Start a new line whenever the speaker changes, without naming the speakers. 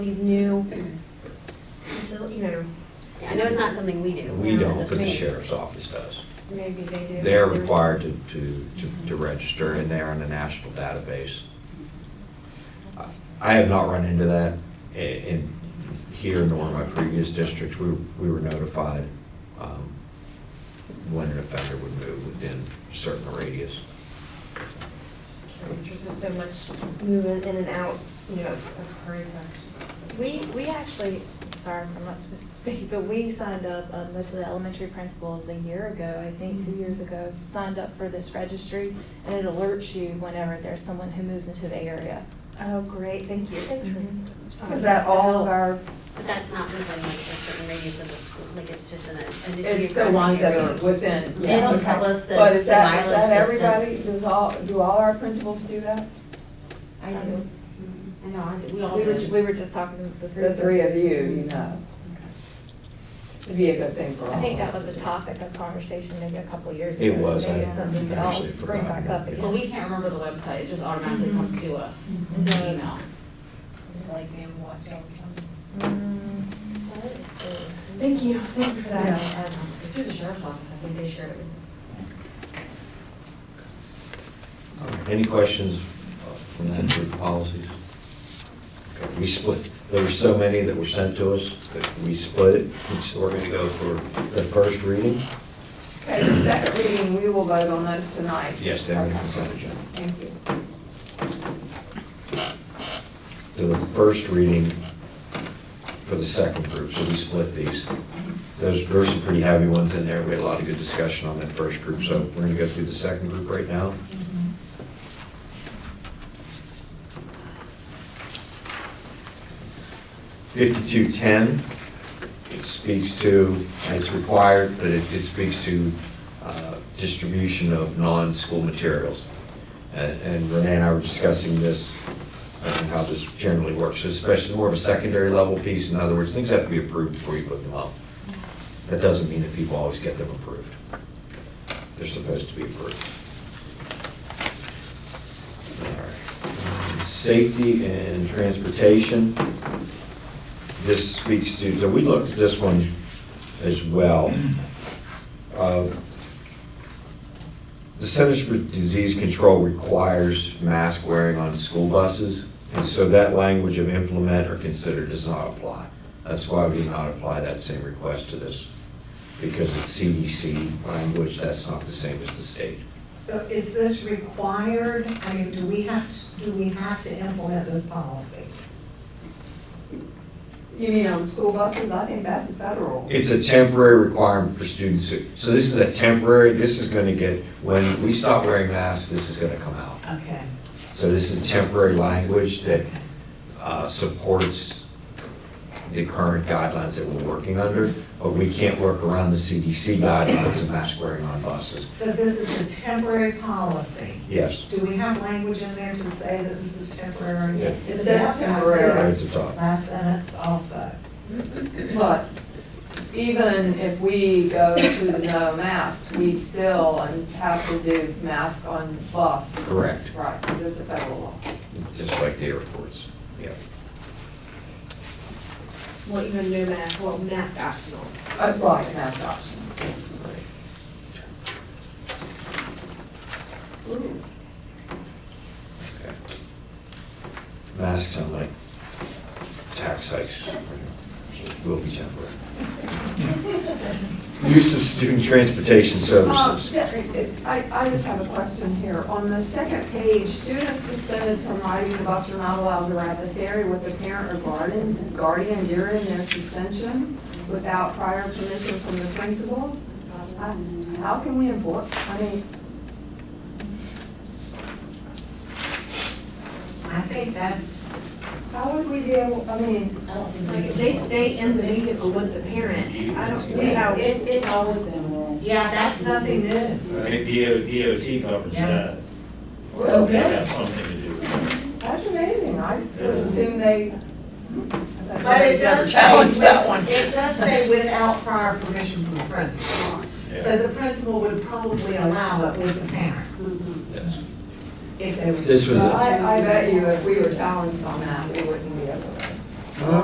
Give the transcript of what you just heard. these new, facil- you know,
Yeah, I know it's not something we do.
We
as a
don't, but the
state.
sheriff's office does.
maybe they do.
They're required to, to, to- to register and they're in the national database. I- I have not run into that i- in, here nor in my previous districts. We, we were notified um, when an offender would move within a certain radius.
Just curious, There's just so much movement in and out, you know, of hurry times.
We, we actually, sorry, I'm not supposed to speak, but we signed up, uh, most of the elementary principals a year ago, I think, two years ago, signed up for this registry, and it alerts you whenever there's someone who moves into the area.
Oh, great, thank you. Thanks for- Mm-hmm.
Is that all of our,
But that's not within like a certain radius of the school, like it's just in a. in a
it's the ones that are
geographic
within?
They
yeah,
don't
okay.
tell us the-
But is
the
that, is
mileage
that everybody,
distance.
does all, do all our principals do that?
area. I do. I know, I do. we all
We were,
do.
we were just talking to the three
The
of us.
three of you, you know. It'd be a good thing for all of us.
I think that was a topic of conversation maybe a couple years ago.
It was, I
Maybe it's something we all
actually
Bring
forgot
back
about
up
it.
again.
Well, we can't remember the website, it just automatically comes to
Mm-hmm.
us in the email.
Thank you, thank you for that.
Yeah.
Um, Through the sheriff's office, I think they shared it with us.
Any questions from that group of policies? Okay, We split, there were so many that were sent to us that we split it. And so we're going to go for the first reading.
Okay, the second reading, we will vote on those tonight.
Yes, they're on the consent agenda.
Thank you.
to the first reading for the second group, so we split these. There's, there's some pretty heavy ones in there, we had a lot of good discussion on that first group, so we're gonna go through the second group right now. Fifty-two ten, it speaks to, and it's required, but it, it speaks to, uh, distribution of non-school materials. And- And Renee and I were discussing this, and how this generally works, especially more of a secondary level piece. In other words, things have to be approved before you put them up. That doesn't mean that people always get them approved. They're supposed to be approved. All right. Um, Safety and transportation. This speaks to, so we looked at this one as well. Uh, the Centers for Disease Control requires mask wearing on school buses, and so that language of implement or consider does not apply. That's why we do not apply that same request to this, because it's CDC language, that's not the same as the state.
So is this required, I mean, do we have, to do we have to implement this policy?
You mean on school buses? I think that's federal.
It's a temporary requirement for students, who- so this is a temporary, this is gonna get, when we stop wearing masks, this is gonna come out.
Okay.
So this is temporary language that uh, supports the current guidelines that we're working under, but we can't work around the CDC guidelines of mask wearing on buses.
So this is a temporary policy.
Yes,
Do we have language in there to say that this is temporary?
Yes.
It says
right
temporary.
at the top.
Last sentence also.
But even if we go to the no mask, we still have to do mask on bus.
Correct.
Right, because it's a federal law.
Just like the airports. Yeah.
Well, even no mask, well, mask optional.
Uh, Right, mask option.
Okay. Masks on like tax hikes will be temporary. Use of student transportation
Um, Oh,
services.
I, I just have a question here. On the second page, students suspended from riding the bus are not allowed to ride the ferry with the parent or guardian, guardian during their suspension without prior permission from the principal. Uh, How can we enforce, I mean,
I think that's,
how would we be able, I mean,
I don't think
Like, if they stay in the vehicle with the parent, I don't see how.
It's, it's always been a rule.
yeah, that's nothing new.
I think DO, DOT covers
Yeah.
that.
Well,
They have something to do with it.
that's amazing. I would assume they.
But it does say,
Challenge that
with- it does say without prior permission from the principal. So
Yeah.
the principal would probably allow it with the parent
Yes.
if they were.
This was a-
I, I bet you if we were challenged on that, we wouldn't be able